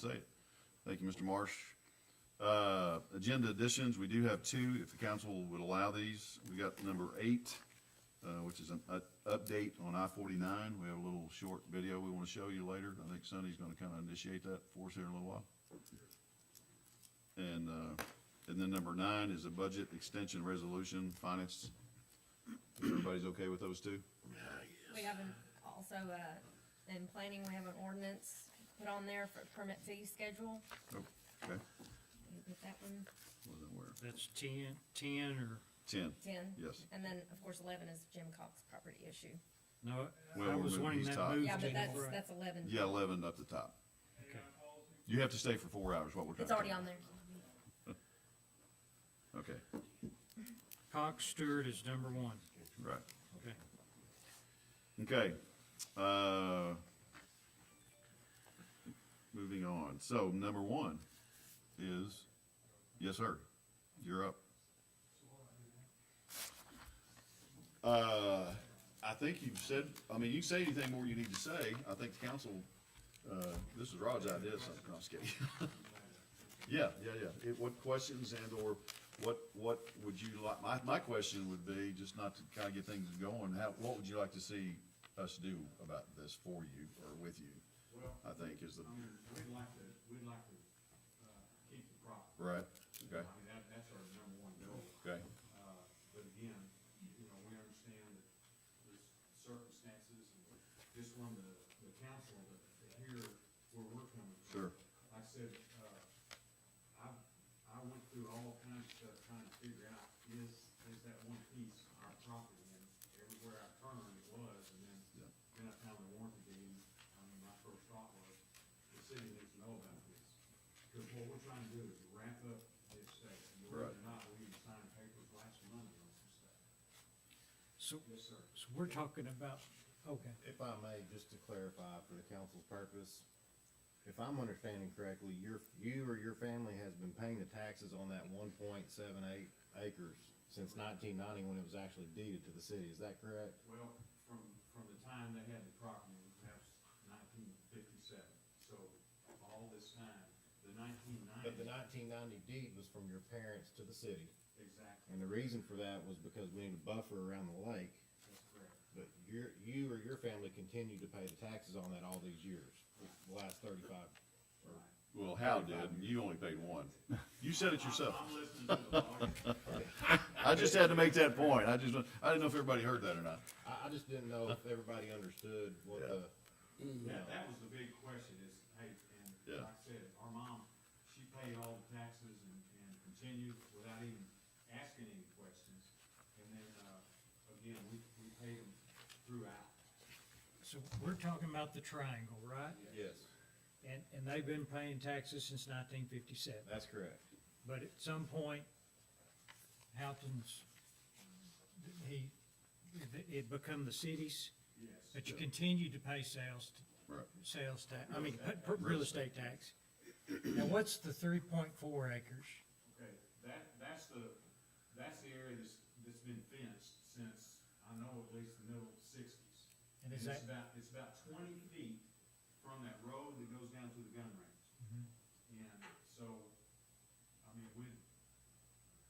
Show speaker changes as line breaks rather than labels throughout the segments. Say, thank you, Mr. Marsh. Uh, agenda additions, we do have two, if the council would allow these. We got number eight, uh, which is an u- update on I forty-nine. We have a little short video we want to show you later. I think Sonny's gonna kind of initiate that for us here in a little while. And, uh, and then number nine is a budget extension resolution, finance. If Everybody's okay with those two?
We have an, also, uh, in planning, we have an ordinance put on there for permit fee schedule.
Oh, Okay,
You Get that one,
wasn't aware.
That's ten, ten or,
Ten,
ten.
yes.
And then, of course, eleven is Jim Cox property issue.
no,
Well,
I was
we're
wanting
moving
that
these
moved.
Yeah, but
in.
that's,
Right.
that's eleven.
Yeah, eleven up the top.
Okay.
You have to stay for four hours, what we're trying
It's
to.
already
do.
on there.
Okay,
Cox Stewart is number one,
right.
okay.
Okay, uh, moving on. So number one is, yes, sir, you're up. Uh, I think you've said, I mean, you can say anything more you need to say. I think the council, uh, this is Rod's idea, so I'm just kidding. Yeah, yeah, yeah. It, what questions and or what, what would you like, my, my question would be, just not to kind of get things going, how, what would you like to see us do about this for you or with you? I think is the,
I mean, we'd like to, we'd like to, uh, keep the property.
right, okay,
I mean, that, that's our number one goal.
okay,
Uh, but again, you know, we understand that there's circumstances and just from the, the council to to hear where we're coming from.
Sure.
Like I said, uh, I, I went through all kinds of stuff trying to figure out, is, is that one piece our property? And everywhere I turned, it was, and then,
Yeah.
then I found the warranty deed. I mean, my first thought was, the city needs to know about this. Because what we're trying to do is wrap up this state. And whether
Right.
or not, we even signed papers last Monday on some stuff.
So,
Yes, sir.
so we're talking about, okay,
If I may, just to clarify for the council's purpose, if I'm understanding correctly, your, you or your family has been paying the taxes on that one point seven eight acres since nineteen ninety when it was actually deeded to the city, is that correct?
Well, from, from the time they had the property, that was nineteen fifty-seven. So all this time, the nineteen
But the
ninety,
nineteen ninety deed was from your parents to the city,
exactly,
and the reason for that was because we needed a buffer around the lake,
that's correct.
but your, you or your family continued to pay the taxes on that all these years, the last thirty-five.
Right.
well, Hal did, and you only paid one. You said it yourself.
I'm listening to the lawyer.
I just had to make that point. I just, I didn't know if everybody heard that or not.
I, I just didn't know if everybody understood what the,
That, that was the big question is, hey, and
Yeah.
like I said, our mom, she paid all the taxes and, and continued without even asking any questions. And then, uh, again, we, we paid them throughout.
so we're talking about the triangle, right?
yes,
And, and they've been paying taxes since nineteen fifty-seven,
that's correct.
but at some point, Halton's, he, it become the city's,
Yes.
but you continued to pay sales t-
Right.
sales tax, I mean, p- p- real estate tax. Now, what's the three point four acres?
Okay, that, that's the, that's the area that's, that's been fenced since, I know, at least the middle sixties.
And is that,
It's about, it's about twenty feet from that road that goes down to the gun range. And so, I mean, we,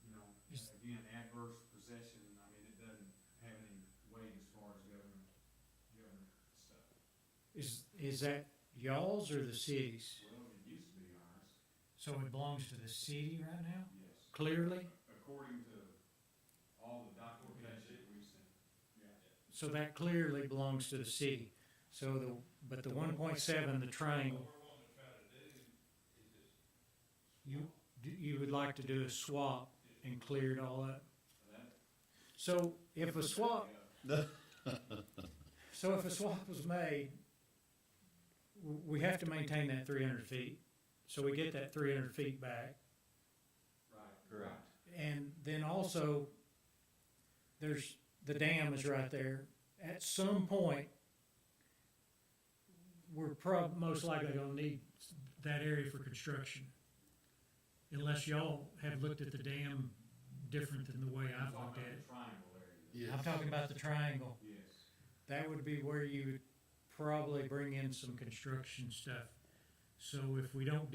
you know,
Is-
again, adverse possession, I mean, it doesn't have any weight as far as government, government stuff.
is, is that y'all's or the city's?
Well, it used to be ours,
So it belongs to the city right now,
yes,
clearly?
according to all the documentation we've seen. Yeah.
So that clearly belongs to the city. So the, but the one point seven, the triangle. You, do- you would like to do a swap and clear it all up? So if a swap, so if a swap was made, w- we have to maintain that three hundred feet. So we get that three hundred feet back.
Right.
Correct.
And then also, there's, the dam is right there. At some point, we're prob, most likely gonna need that area for construction. Unless y'all have looked at the dam different than the way I've
Talking
looked
about
at
the
it.
triangle area,
I'm talking about the triangle.
yes.
That would be where you would probably bring in some construction stuff. So if we don't